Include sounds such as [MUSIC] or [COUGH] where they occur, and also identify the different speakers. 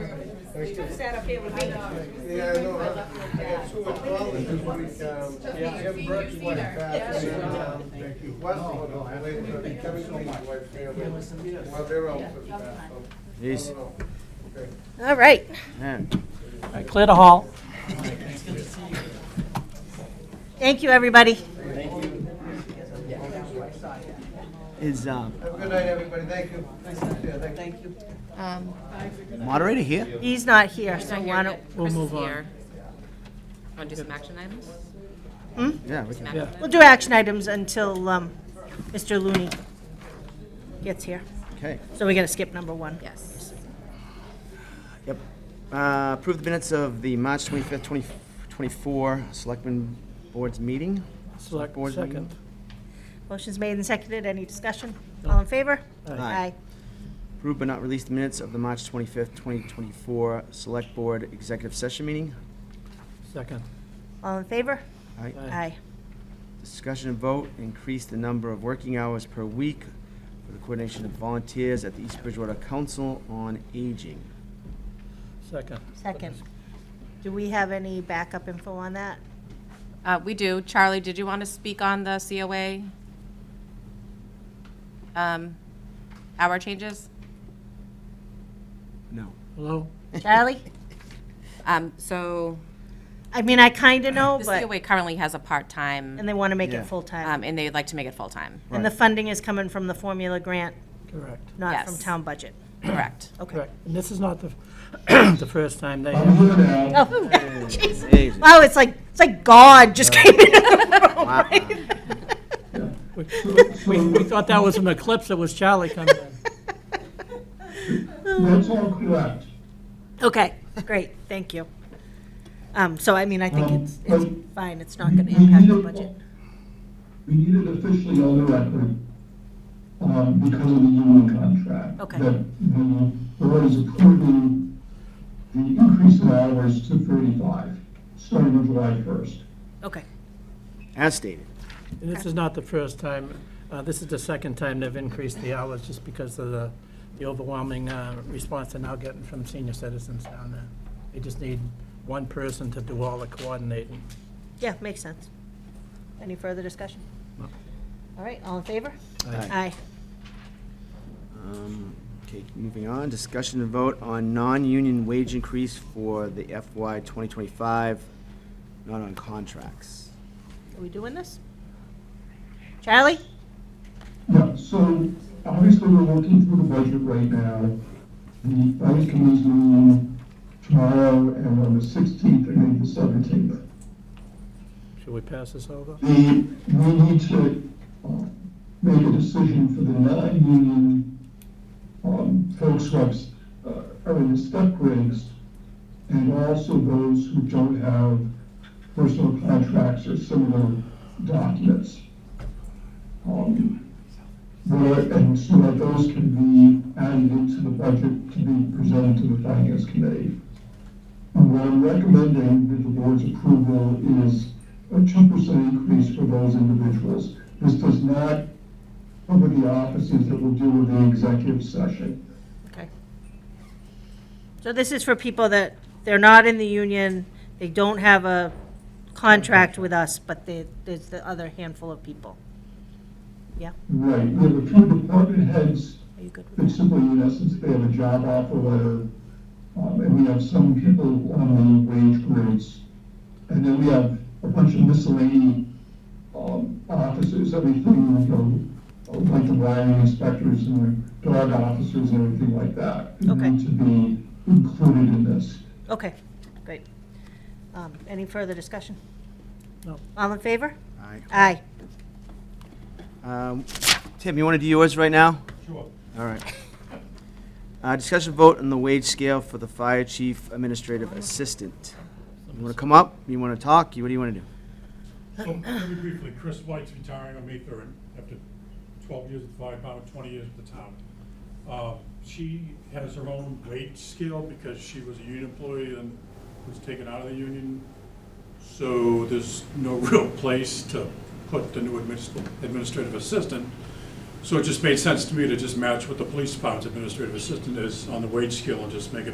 Speaker 1: You sat up here with me.
Speaker 2: Yeah, I know, I I got two problems this week, um, Jim Burke's wife passed, and, um, Westwood, uh, with, uh, Kevin Smith's wife, family, well, they're all just passed, so. I
Speaker 3: Yes.
Speaker 2: don't know. Okay.
Speaker 1: All right.
Speaker 3: Yeah.
Speaker 4: All right, clear the hall.
Speaker 1: Thank you, everybody.
Speaker 3: Is um,
Speaker 2: Have a good night, everybody, thank you. Yeah, thank you.
Speaker 5: Um,
Speaker 3: moderator here?
Speaker 1: He's not here, so
Speaker 5: not
Speaker 1: why
Speaker 5: here
Speaker 1: don't,
Speaker 5: yet.
Speaker 4: We'll
Speaker 5: Chris is
Speaker 4: move on.
Speaker 5: here. Want to do some action items?
Speaker 3: Yeah. we can-
Speaker 5: Some action items?
Speaker 1: we'll do action items until um, Mr. Looney gets here.
Speaker 3: Okay.
Speaker 1: So we're gonna skip number one.
Speaker 5: Yes.
Speaker 3: Yep. Uh, Approve the minutes of the March 25th, 2024 Selectmen Board's meeting.
Speaker 4: Select
Speaker 3: Board meeting.
Speaker 4: second.
Speaker 1: Motion's made and seconded. Any discussion? All in favor?
Speaker 3: Aye. Approve but not release the minutes of the March 25th, 2024 Select Board Executive Session meeting.
Speaker 4: Second.
Speaker 1: All in favor?
Speaker 3: Aye.
Speaker 1: Aye.
Speaker 3: Discussion and vote, increase the number of working hours per week for the coordination of volunteers at the East Bridgewater Council on Aging.
Speaker 4: Second.
Speaker 1: Second. Do we have any backup info on that?
Speaker 5: Uh, we do. Charlie, did you want to speak on the COA? Um, hour changes?
Speaker 3: No.
Speaker 4: Hello?
Speaker 1: Charlie?
Speaker 5: Um, so
Speaker 1: I mean, I kinda know,
Speaker 5: the
Speaker 1: but,
Speaker 5: COA currently has a part-time,
Speaker 1: and they wanna make
Speaker 3: Yeah.
Speaker 1: it full-time.
Speaker 5: um, and they'd like to make it full-time.
Speaker 1: And the funding is coming from the formula grant,
Speaker 4: Correct.
Speaker 1: not from
Speaker 5: Yes.
Speaker 1: town budget.
Speaker 5: Correct.
Speaker 1: Okay.
Speaker 4: Correct. And this is not the, [CLEARS THROAT] the first time they have.
Speaker 1: Oh, [LAUGHS] jeez. Wow, it's like, it's like God just came in. [LAUGHS] Oh
Speaker 4: We, we- we thought that was an eclipse. It was Charlie coming in.
Speaker 6: That's all correct.
Speaker 1: [LAUGHS] Okay, great, thank you. Um, so I mean, I think
Speaker 6: Um,
Speaker 1: it's, it's
Speaker 6: um,
Speaker 1: fine, it's not gonna impact the budget.
Speaker 6: We need it officially on the record, um, because of the union contract.
Speaker 1: Okay.
Speaker 6: That the board is approving the increase in hours to thirty-five, starting on July first.
Speaker 1: Okay,
Speaker 3: As stated.
Speaker 4: And this is not the first time, uh, this is the second time they've increased the hours just because of the, the overwhelming, uh, response they're now getting from senior citizens down there. They just need one person to do all the coordinating.
Speaker 1: yeah, makes sense. Any further discussion?
Speaker 4: No.
Speaker 1: All right, all in favor?
Speaker 3: Aye.
Speaker 1: Aye.
Speaker 3: Um, Okay, moving on, discussion and vote on non-union wage increase for the FY 2025, not on contracts.
Speaker 1: Are we doing this? Charlie?
Speaker 6: Yeah, so obviously we're working through the budget right now. The budget committee's meeting tomorrow and on the sixteenth and the seventeenth.
Speaker 4: Should we pass this over?
Speaker 6: The, we need to uh, make a decision for the non-union um, folks who have, uh, are in the step grades, and also those who don't have personal contracts or similar documents. Um, Where, and so that those can be added into the budget to be presented to the finance committee. And What I'm recommending with the board's approval is a two percent increase for those individuals. This does not cover the offices that will deal with the executive session.
Speaker 1: Okay. So this is for people that, they're not in the union, they don't have a contract with us, but they, there's the other handful of people. Yeah,
Speaker 6: Right, we have a few department heads
Speaker 1: are you good with
Speaker 6: that simply, in essence, they have a job offer letter, um, and we have some people on the wage grades. And then we have a bunch of miscellany, um, officers, everything, you know, like the wiring inspectors and the dog officers and everything like that.
Speaker 1: Okay.
Speaker 6: Need to be included in this.
Speaker 1: that? Okay, great. Um, any further discussion?
Speaker 4: No.
Speaker 1: All in favor?
Speaker 3: Aye.
Speaker 1: Aye.
Speaker 3: Um, Tim, you want to do yours right now? Sure. All right. Uh, Discussion vote on the wage scale for the Fire Chief Administrative Assistant. You want to come up? You want to talk? You What do you want to do?
Speaker 7: So, very briefly, Chris White's retiring on May third after twelve years at the fire department, twenty years at the town. Uh, She has her own wage scale because she was a union employee and was taken out of the union. So there's no [LAUGHS] real place to put the new adminis- administrative assistant. So it just made sense to me to just match what the police department's administrative assistant is on the wage scale and just make it